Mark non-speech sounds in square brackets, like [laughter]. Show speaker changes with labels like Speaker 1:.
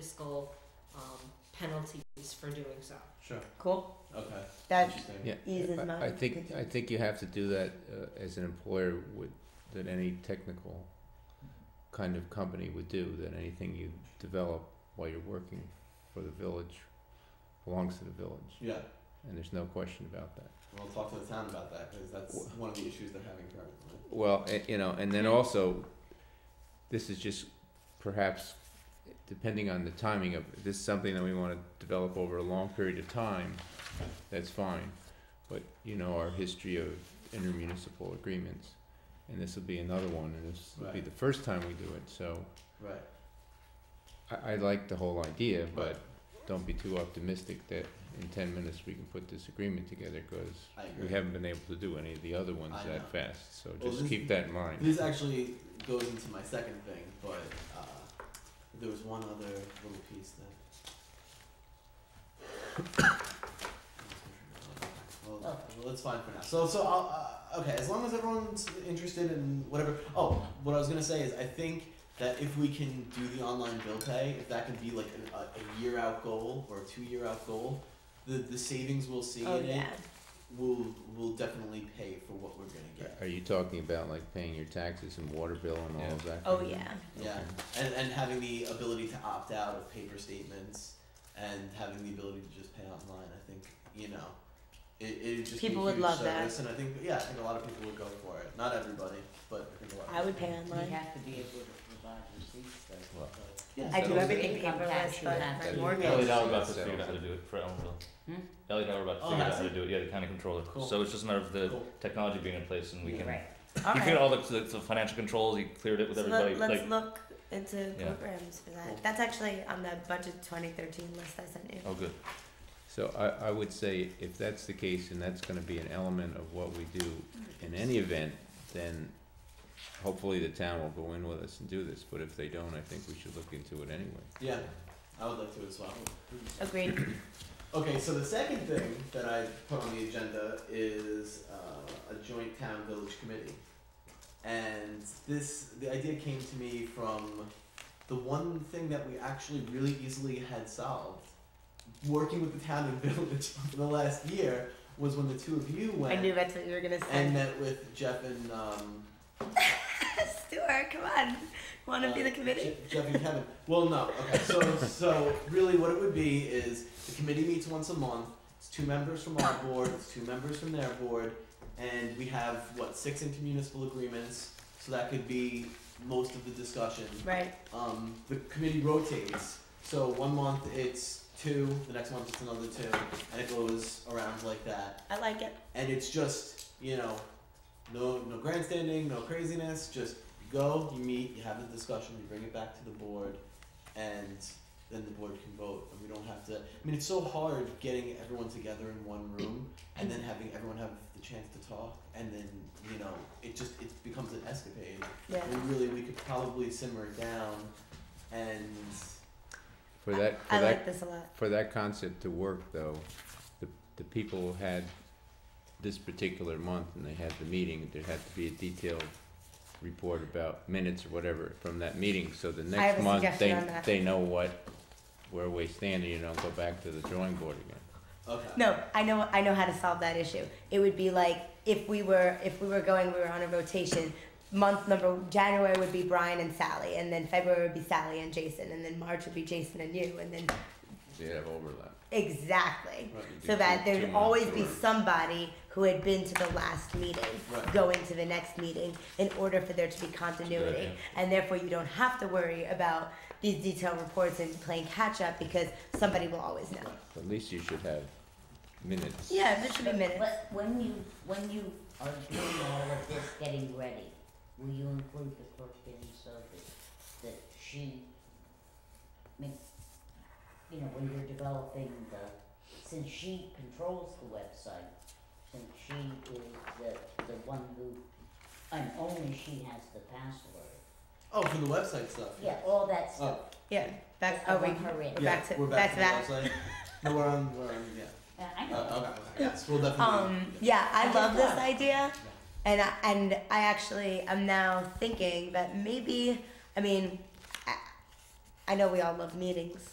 Speaker 1: fiscal um, penalties for doing so.
Speaker 2: Sure,
Speaker 3: Cool.
Speaker 2: okay.
Speaker 3: That
Speaker 2: Interesting.
Speaker 4: Yeah,
Speaker 3: eases
Speaker 4: I-
Speaker 3: my
Speaker 4: I think, I
Speaker 3: thinking.
Speaker 4: think you have to do that uh, as an employer would, that any technical kind of company would do, that anything you develop while you're working for the village belongs to the village,
Speaker 2: Yeah,
Speaker 4: and there's no question about that.
Speaker 2: we'll talk to the town about that, cause that's
Speaker 4: Wha-
Speaker 2: one of the issues they're having currently.
Speaker 4: Well, a- you know, and then also, this is just perhaps, depending on the timing of, this is something that we wanna develop over a long period of time, that's fine. But, you know, our history of intermunicipal agreements, and this will be another one, and this will be
Speaker 2: Right.
Speaker 4: the first time we do it, so
Speaker 2: Right,
Speaker 4: I, I like the whole idea, but don't be too optimistic that in ten minutes we can put this agreement together, cause
Speaker 2: I agree.
Speaker 4: we haven't been able to do any of the other ones
Speaker 2: I know.
Speaker 4: that fast, so
Speaker 2: Well,
Speaker 4: just
Speaker 2: this-
Speaker 4: keep that in mind.
Speaker 2: This actually goes into my second thing, but uh, there was one other little piece that. [coughs] Well, well, let's find for now. So, so I'll, uh, okay. As long as everyone's interested in whatever. Oh, what I was gonna say is, I think that if we can do the online bill pay, if that can be like a, a, a year out goal or a two year out goal, the the savings we'll see
Speaker 3: Oh
Speaker 2: in
Speaker 3: yeah.
Speaker 2: it will will definitely pay for what we're gonna get.
Speaker 4: Are you talking about like paying your taxes and water bill and all of that?
Speaker 3: Oh
Speaker 4: kind of-
Speaker 3: yeah.
Speaker 2: Yeah, and, and having the ability to opt out of paper statements and having the ability to just pay online, I think you know, it it would just be
Speaker 3: People
Speaker 2: a
Speaker 3: would
Speaker 2: huge
Speaker 3: love that.
Speaker 2: service, and I think yeah, I think a lot of people would go for it. Not everybody, but I think a lot. Of
Speaker 3: I would
Speaker 2: people.
Speaker 3: pay online.
Speaker 5: have to be able to provide receipts though.
Speaker 4: Well,
Speaker 2: Yeah,
Speaker 3: I
Speaker 2: so-
Speaker 3: do everything
Speaker 5: Income tax
Speaker 3: paperless,
Speaker 5: you
Speaker 3: but
Speaker 5: have
Speaker 3: my
Speaker 5: to-
Speaker 4: Ellie
Speaker 3: mortgage.
Speaker 4: now we're about to figure out how to
Speaker 6: do it for Elmville.
Speaker 5: Hmm?
Speaker 6: Ellie and I were about
Speaker 2: to Oh, figure out how to
Speaker 6: do it, yeah, the county controller.
Speaker 2: Cool. So
Speaker 6: it's just a matter of the
Speaker 2: Cool.
Speaker 6: technology being in place and
Speaker 2: we can-
Speaker 5: Right.
Speaker 3: All
Speaker 6: You figured
Speaker 3: right.
Speaker 6: all the, the, the financial controls. You cleared it with
Speaker 3: So
Speaker 6: everybody.
Speaker 3: let, let's
Speaker 6: like,
Speaker 3: look into
Speaker 6: Yeah.
Speaker 3: programs for that.
Speaker 2: Cool.
Speaker 3: That's actually on the budget 2013 list I sent you.
Speaker 6: oh, good.
Speaker 4: So I, I would say if that's the case and that's gonna be an element of what we do in any event, then hopefully the town will go in with us and do this, but if they don't, I think we should look into it anyway.
Speaker 2: yeah, I would like to as well.
Speaker 3: Agreed.
Speaker 2: Okay, so the second thing that I put on the agenda is uh, a joint town village committee, and this the idea came to me from the one thing that we actually really easily had solved, working with the town and [laughs] village for the last year was when the two of you
Speaker 3: I
Speaker 2: went
Speaker 3: knew that's what you were gonna
Speaker 2: and
Speaker 3: say.
Speaker 2: met with Jeff and um,
Speaker 3: [laughs] Stuart, come on. Want to
Speaker 2: uh,
Speaker 3: be the committee?
Speaker 2: Je- Jeff and Kevin. Well, no. Okay. So, so really, what it would be is the committee meets once a month. It's two members from our board. It's two members from their board, and we have what six intermunicipal agreements. So that could be most of the discussion.
Speaker 3: Right.
Speaker 2: Um, the committee rotates. So one month it's two. The next month it's another two, and it goes around like that
Speaker 3: I like it.
Speaker 2: and it's just you know no no grandstanding no craziness just you go you meet you have the discussion you bring it back to the board and then the board can vote and we don't have to i mean it's so hard getting everyone together in one room and then having everyone have the chance to talk and then you know it just it becomes an escapade
Speaker 3: Yeah.
Speaker 2: and really we could probably simmer it down and
Speaker 4: For that,
Speaker 3: I
Speaker 4: for
Speaker 3: like
Speaker 4: that,
Speaker 3: this a lot.
Speaker 4: for that concept to work though, the, the people had this particular month and they had the meeting, there had to be a detailed report about minutes or whatever from that meeting, so the
Speaker 3: have
Speaker 4: next
Speaker 3: a
Speaker 4: month
Speaker 3: suggestion
Speaker 4: they,
Speaker 3: on that.
Speaker 4: they know what, where we stand and you don't go back to the drawing board again.
Speaker 2: okay
Speaker 3: No, I know I know how to solve that issue. It would be like if we were if we were going we were on a rotation. Month number January would be Brian and Sally, and then February would be Sally and Jason, and then March would be Jason and you, and then
Speaker 4: They have overlap.
Speaker 3: exactly.
Speaker 2: right
Speaker 3: So that
Speaker 4: Two
Speaker 3: there'd
Speaker 4: months
Speaker 3: always be
Speaker 4: or-
Speaker 3: somebody who had been to the last meeting
Speaker 2: Right.
Speaker 3: going to the next meeting in order for there to be continuity,
Speaker 6: idea.
Speaker 3: and therefore you don't have to worry about these detailed reports and playing catch up because somebody will always know.
Speaker 4: At least you should have minutes.
Speaker 3: Yeah, there should be
Speaker 5: But-
Speaker 3: minutes.
Speaker 5: But when you, when you are doing all of this, getting ready, will you include the clerk in so that, that she, make, you know, when you're developing the, since she controls the website, since she is the, the one who, and only she has the password,
Speaker 2: oh for the website stuff Oh,
Speaker 5: yeah, all that stuff.
Speaker 3: Yeah, back.
Speaker 5: I
Speaker 3: Oh wait,
Speaker 5: want her in.
Speaker 3: we're
Speaker 2: yeah
Speaker 3: back to-
Speaker 2: we're back,
Speaker 3: back
Speaker 2: to the website no we're on we're on yeah
Speaker 5: Uh, I know.
Speaker 2: Uh, okay, yes, we'll definitely.
Speaker 3: Um, yeah, I
Speaker 5: Okay,
Speaker 3: love this
Speaker 5: yeah.
Speaker 3: idea, and I, and I actually am now thinking that maybe I mean, I, I know we all love meetings.